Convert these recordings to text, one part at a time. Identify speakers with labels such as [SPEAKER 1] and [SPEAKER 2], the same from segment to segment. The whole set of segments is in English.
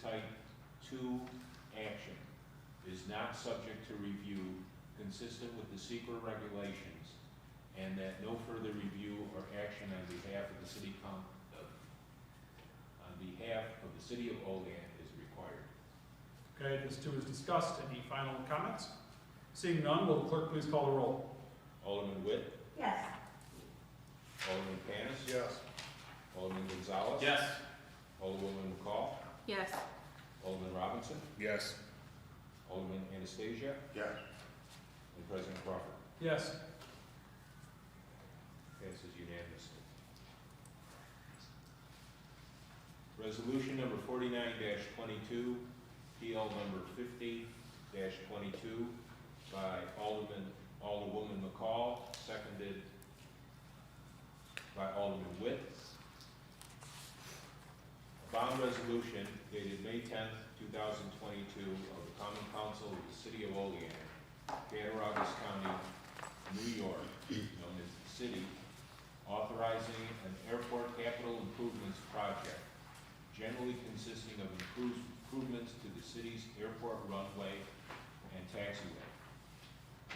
[SPEAKER 1] type two action is not subject to review consistent with the secret regulations, and that no further review or action on behalf of the city coun, uh, on behalf of the city of Olean is required.
[SPEAKER 2] Okay, this too is discussed. Any final comments? Seeing none, will the clerk please call the roll?
[SPEAKER 1] Alderman Witt,
[SPEAKER 3] Yes.
[SPEAKER 1] Alderman Panis.
[SPEAKER 4] Yes.
[SPEAKER 1] Alderman Gonzalez.
[SPEAKER 2] Yes.
[SPEAKER 1] Alderwoman McCall,
[SPEAKER 3] Yes.
[SPEAKER 1] Alderman Robinson,
[SPEAKER 4] Yes.
[SPEAKER 1] Alderman Anastasia,
[SPEAKER 4] Yes.
[SPEAKER 1] and President Crawford.
[SPEAKER 2] Yes.
[SPEAKER 1] Passes unanimously. Resolution number forty-nine twenty-two, PL number fifty twenty-two by Alderman, Alderwoman McCall, seconded by Alderman Witt. A Bond resolution dated May tenth, two thousand twenty-two of the Common Council of the City of Olean, Cattaraugus County, New York, known as the city, authorizing an airport capital improvements project generally consisting of improves- improvements to the city's airport runway and taxiway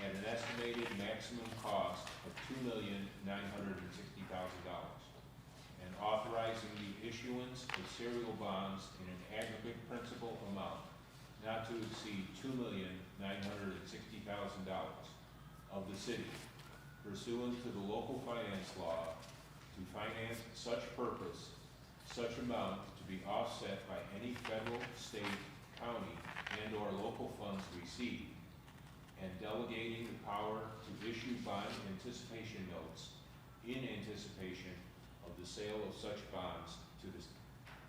[SPEAKER 1] at an estimated maximum cost of two million nine hundred and sixty thousand dollars and authorizing the issuance of serial bonds in an aggregate principal amount not to exceed two million nine hundred and sixty thousand dollars of the city pursuant to the local finance law to finance such purpose, such amount to be offset by any federal, state, county, and/or local funds received, and delegating the power to issue bond anticipation notes in anticipation of the sale of such bonds to the,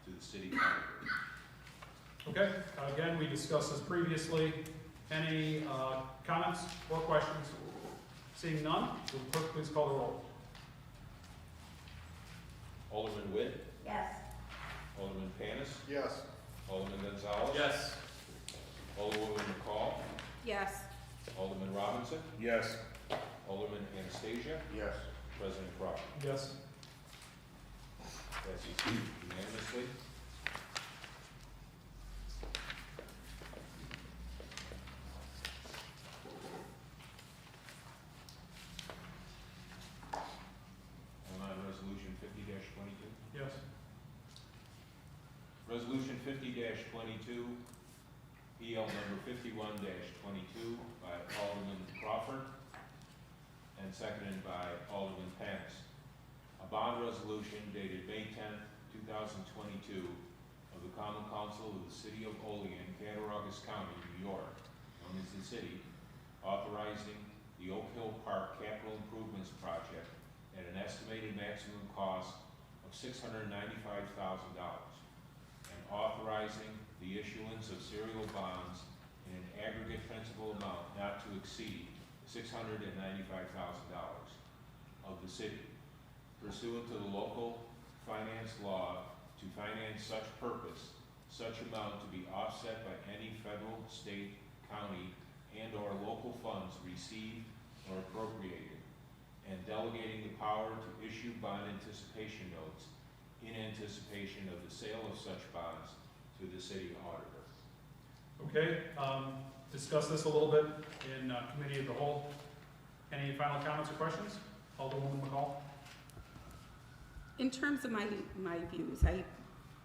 [SPEAKER 1] to the city. council.
[SPEAKER 2] Okay, again, we discussed this previously. Any uh, comments or questions? Seeing none, will the clerk please call the roll?
[SPEAKER 1] Alderman Witt,
[SPEAKER 3] Yes.
[SPEAKER 1] Alderman Panis,
[SPEAKER 4] Yes.
[SPEAKER 1] Alderman Gonzalez.
[SPEAKER 2] Yes.
[SPEAKER 1] Alderwoman McCall,
[SPEAKER 3] Yes.
[SPEAKER 1] Alderman Robinson,
[SPEAKER 4] Yes.
[SPEAKER 1] Alderman Anastasia,
[SPEAKER 4] Yes.
[SPEAKER 1] President Crawford.
[SPEAKER 2] Yes.
[SPEAKER 1] Passes unanimously. And on resolution fifty twenty-two.
[SPEAKER 2] Yes.
[SPEAKER 1] Resolution fifty twenty-two, PL number fifty-one twenty-two by Alderman Crawford and seconded by Alderman Panis. A bond resolution dated May tenth, two thousand twenty-two of the Common Council of the City of Olean, Cattaraugus County, New York, known as the city, authorizing the Oak Hill Park Capital Improvements Project at an estimated maximum cost of six hundred ninety-five thousand dollars and authorizing the issuance of serial bonds in an aggregate principal amount not to exceed six hundred and ninety-five thousand dollars of the city pursuant to the local finance law to finance such purpose, such amount to be offset by any federal, state, county, and/or local funds received or appropriated, and delegating the power to issue bond anticipation notes in anticipation of the sale of such bonds to the city auditor.
[SPEAKER 2] Okay, um, discussed this a little bit in uh, committee of the whole. Any final comments or questions? Alderwoman McCall?
[SPEAKER 5] In terms of my, my views, I,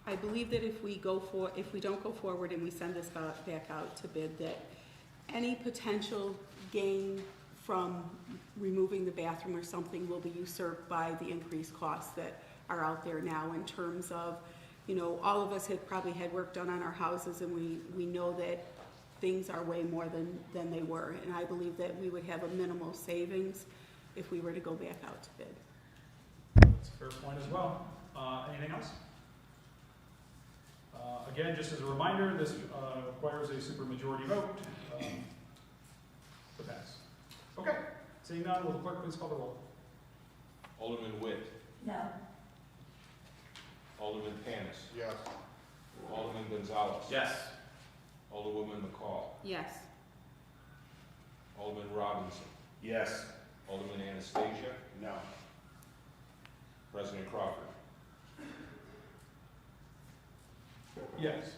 [SPEAKER 5] I believe that if we go for, if we don't go forward and we send this ba- back out to bid, that any potential gain from removing the bathroom or something will be usurped by the increased costs that are out there now in terms of, you know, all of us had probably had work done on our houses and we, we know that things are way more than, than they were. And I believe that we would have a minimal savings if we were to go back out to bid.
[SPEAKER 2] That's a fair point as well. Uh, Anything else? Uh, Again, just as a reminder, this uh, requires a supermajority vote um, to pass. Okay, seeing none, will the clerk please call the roll?
[SPEAKER 1] Alderman Witt,
[SPEAKER 3] No.
[SPEAKER 1] Alderman Panis,
[SPEAKER 4] Yes.
[SPEAKER 1] Alderman Gonzalez.
[SPEAKER 2] Yes.
[SPEAKER 1] Alderwoman McCall,
[SPEAKER 5] Yes.
[SPEAKER 1] Alderman Robinson,
[SPEAKER 4] Yes.
[SPEAKER 1] Alderman Anastasia,
[SPEAKER 4] No.
[SPEAKER 1] President Crawford.
[SPEAKER 2] Yes.